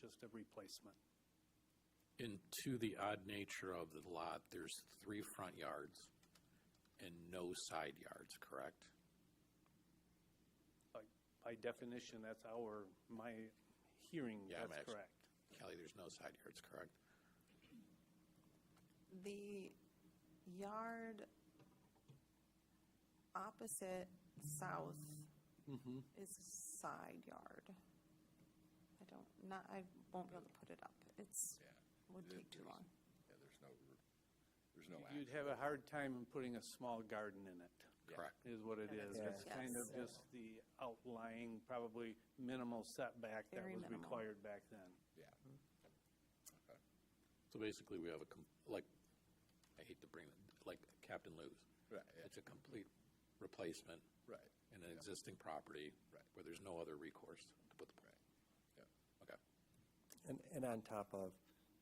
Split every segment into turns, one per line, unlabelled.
just a replacement.
And to the odd nature of the lot, there's three front yards and no side yards, correct?
By definition, that's our, my hearing,
Yeah, I'm
that's
actually-
correct.
Kelly, there's no side yards, correct?
The yard opposite south is side yard. I don't, not, I won't be able to put it up. It's,
Yeah.
would
There-
take too
there's-
long.
Yeah, there's no, r- there's no
You'd
action.
have a hard time in putting a small garden in it,
Correct.
is what it is.
Yeah.
It's kind of
Yes.
just the outlying, probably minimal setback that
Very
was
minimal.
required back then.
Yeah. Okay.
So basically, we have a, com- like, I hate to bring, it- like Captain Lou's.
Right, yeah.
It's a complete replacement
Right,
in an existing property.
Right.
Where there's no other recourse to put the pool.
right, yeah.
Okay.
And, and on top of,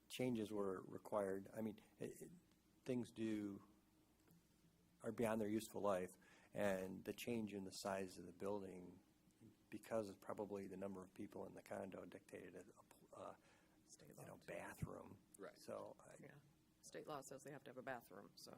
changes were required, I mean, it, it, things do, are beyond their useful life, and the change in the size of the building, because of probably the number of people in the condo dictated a, a pl- uh, you know, bathroom.
Right.
So, I,
Yeah, state law says they have to have a bathroom, so.
To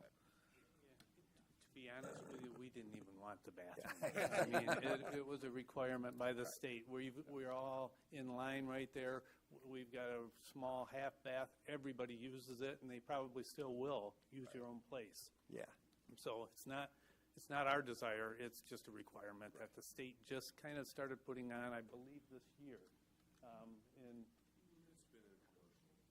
be honest with you, we didn't even want the bathroom. I mean, it, it was a requirement by the state. We've, we're all in line right there. We've got a small half bath. Everybody uses it and they probably still will use your own place.
yeah.
So it's not, it's not our desire, it's just a requirement that the state just kind of started putting on, I believe, this year. Um, And,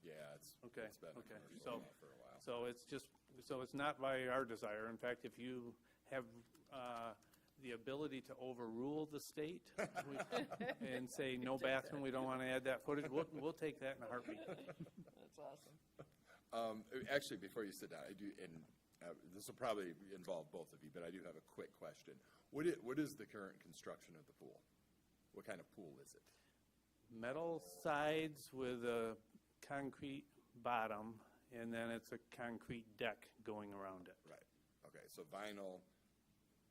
Yeah, it's,
okay,
it's been a
okay,
commercial
so,
law for a while.
so it's just, so it's not by our desire. In fact, if you have uh, the ability to overrule the state we- and say, no bathroom, we don't want to add that footage, we'll, we'll take that in a heartbeat.
That's awesome.
Um, actually, before you sit down, I do, and uh, this will probably involve both of you, but I do have a quick question. What is, what is the current construction of the pool? What kind of pool is it?
metal sides with a concrete bottom, and then it's a concrete deck going around it.
Right, okay, so vinyl,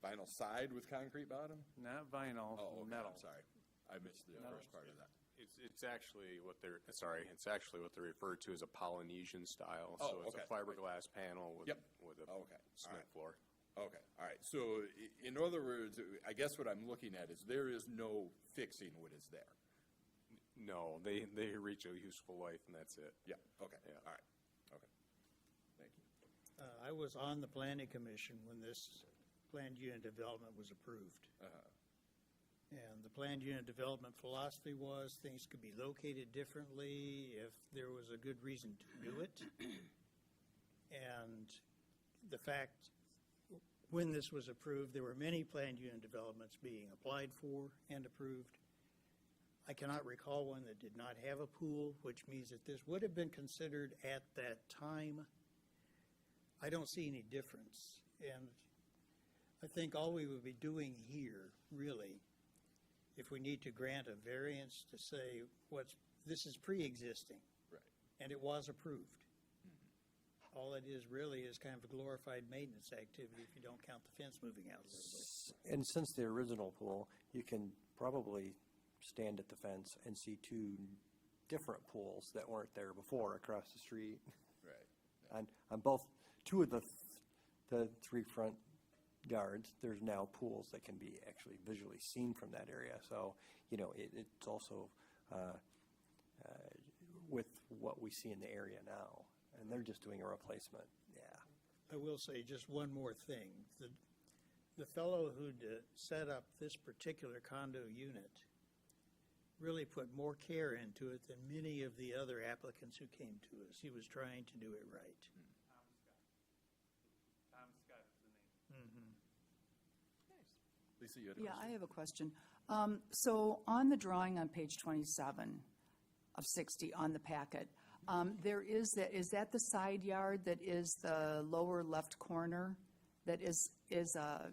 vinyl side with concrete bottom?
Not vinyl,
Oh, okay,
metal.
I'm sorry. I missed the first part of that.
It's, it's actually what they're, sorry, it's actually what they refer to as a Polynesian style.
Oh,
So it's
okay.
a fiberglass panel with,
Yep.
with a
Oh, Okay. All
cement
right.
floor.
Okay, all right. So i- in other words, I guess what I'm looking at is there is no fixing what is there.
No, they, they reach a useful life and that's it.
Yeah, okay,
Yeah.
all right, okay. Thank you.
Uh, I was on the planning commission when this planned unit development was approved. And the planned unit development philosophy was things could be located differently if there was a good reason to do it. And the fact, when this was approved, there were many planned unit developments being applied for and approved. I cannot recall one that did not have a pool, which means that this would have been considered at that time. I don't see any difference. And I think all we would be doing here, really, if we need to grant a variance to say what's, this is pre-existing.
Right.
And it was approved. All it is really is kind of a glorified maintenance activity if you don't count the fence moving out a little bit.
And since the original pool, you can probably stand at the fence and see two different pools that weren't there before across the street.
Right.
On, on both, two of the, th- the three front yards, there's now pools that can be actually visually seen from that area. So, you know, it, it's also, uh, uh, with what we see in the area now, and they're just doing a replacement, yeah.
I will say just one more thing. The, the fellow who set up this particular condo unit really put more care into it than many of the other applicants who came to us. He was trying to do it right.
Tom Scott is the name.
Lisa, you had a
Yeah,
question?
I have a question. Um, So on the drawing on page 27 of 60 on the packet, um, there is that, is that the side yard that is the lower left corner that is, is uh,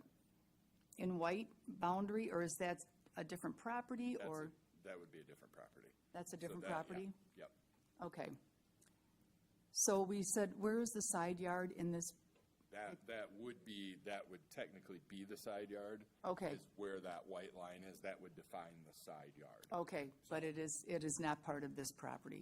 in white boundary, or is that a different property,
That's a-
or
That would be a different property.
that's a
So
different
that- yeah,
property?
Yep,
Okay. So we said, where is the side yard in this
That, that would be, that would technically be the side yard.
Okay.
Is where that white line is, that would define the side yard.
Okay, but it is, it is not part of this property.